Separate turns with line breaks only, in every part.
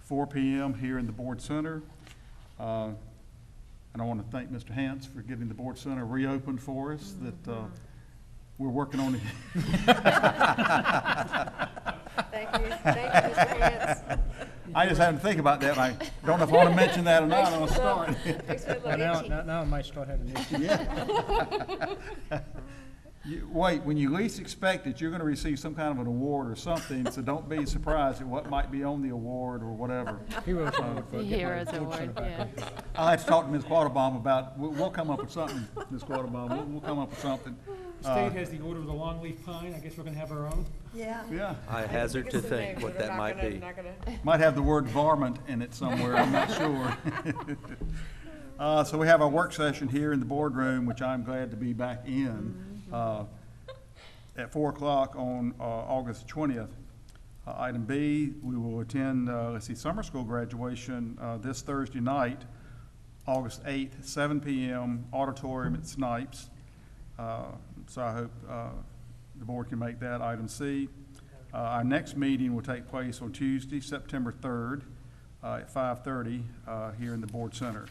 four PM here in the Board Center. Uh, And I want to thank Mr. Hance for getting the Board Center reopened for us, that uh, we're working on it.
Thank you, thank you, Mr. Hance.
I just had to think about that, and I don't know if I want to mention that or not, I'm starting.
Makes me
Now,
a little
now,
itchy.
now- now I might start having issues.
You, wait, when you least expect it, you're gonna receive some kind of an award or something, so don't be surprised at what might be on the award or whatever.
Heroes Award. for-
The Heroes Award, yeah.
I'll have to talk to Ms. Quattlebaum about, we'll, we'll come up with something, Ms. Quattlebaum, we'll, we'll come up with something. Uh,
State has the order of the longleaf pine, I guess we're gonna have our own.
Yeah.
Uh, Yeah,
I hazard to
It's a
think
name,
what that
but I'm not
might
gonna-
be.
not gonna-
might have the word varmint in it somewhere, I'm not sure. Uh, so we have our work session here in the boardroom, which I'm glad to be back in, uh, at four o'clock on, uh, August twentieth. Uh, item B, we will attend, uh, let's see, summer school graduation, uh, this Thursday night, August eighth, seven PM, auditorium at Snipes. Uh, So I hope uh, the board can make that. Item C, uh, our next meeting will take place on Tuesday, September 3rd, uh, at 5:30 uh, here in the Board Center.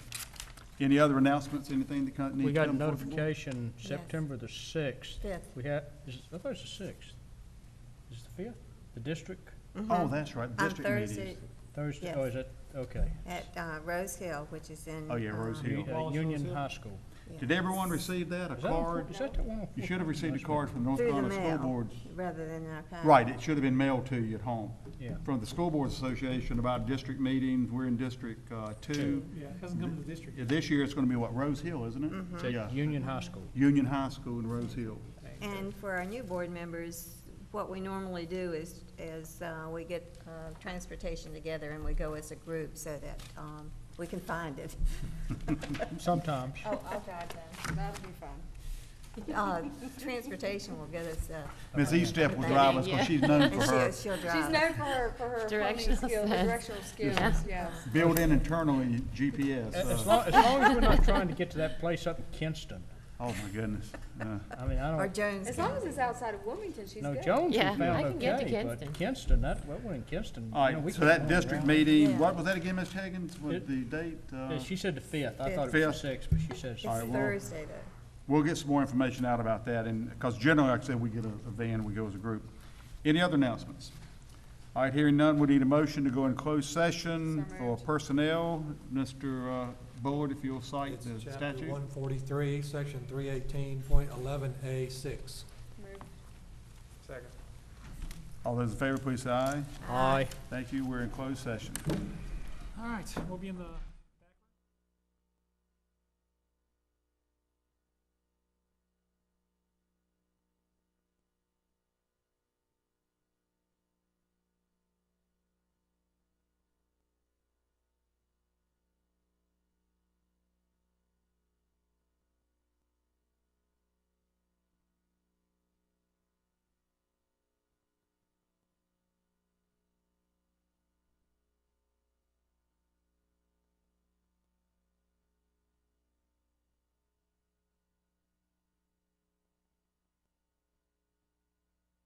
Any other announcements, anything that kind-
We
needs to
got a
come forward?
notification September the sixth.
Fifth.
We had, is, it- I thought it was the sixth. Is it the fifth? The district,
Oh, that's right,
Mm-hmm. On
district
Thursday
meetings.
Thursday, oh,
Yes.
is it, okay.
at uh, Rose Hill, which is in.
Oh, yeah, Rose
um,
Hill.
U- uh,
Wallace
Union
Hill.
High School.
yeah.
Did everyone receive that, a
Is that on four-
card?
Is that the one? on
You
four-
should have received a
Must be.
card from North
Through the
Carolina School
mail,
Boards.
rather than in our packet.
Right, it should have been mailed to you at home.
Yeah.
From the School Boards Association about district meetings, we're in District uh, Two.
Yeah, it hasn't come to the district.
Yeah, This year, it's gonna be what, Rose Hill, isn't
Mm-hmm.
it?
It's
Yeah.
at Union High School.
Union High School in Rose Hill.
And for our new board members, what we normally do is, is uh, we get uh, transportation together and we go as a group so that um, we can find it.
Sometimes.
Oh, I'll drive then, that'll be fun.
Uh, Transportation will get us, uh,
Ms. Eastep will drive us, because she's known
and
for
she'll,
her
she'll
She's
drive. us.
known for her, for her planning
Directional
skills,
sense.
directional skills, yes.
built-in internally GPS.
As as
uh,
long, as long as we're not trying to get to that place up in Kinston.
Oh, my goodness. Uh,
I mean, I
Or
don't,
Jones.
As
can-
long as it's outside of Wilmington, she's
no,
good.
Jones we
Yeah, I
found
can get to
okay, but
Kinston.
Kinston, that, well, we're in Kinston. you
All
know, we
right, so
can't
that
run
district
around.
meeting,
Yeah.
what was that again, Ms. Higgins, with
It-
the date?
Yeah,
uh,
she said the fifth. I thought it
Fifth.
was the sixth, but she says.
It's
All right, well-
Thursday though.
We'll get some more information out about that, and, because generally, like I said, we get a a van, we go as a group. Any other announcements? All right, hearing none, we need a motion to go in closed session
So
for
moved.
personnel. Mr. uh, Bullard, if you'll cite
It's
the
chapter
statute.
one forty-three, section three eighteen point eleven A six.
Move.
Second.
All those in favor, please say aye.
Aye.
Thank you, we're in closed session.
All right, we'll be in the.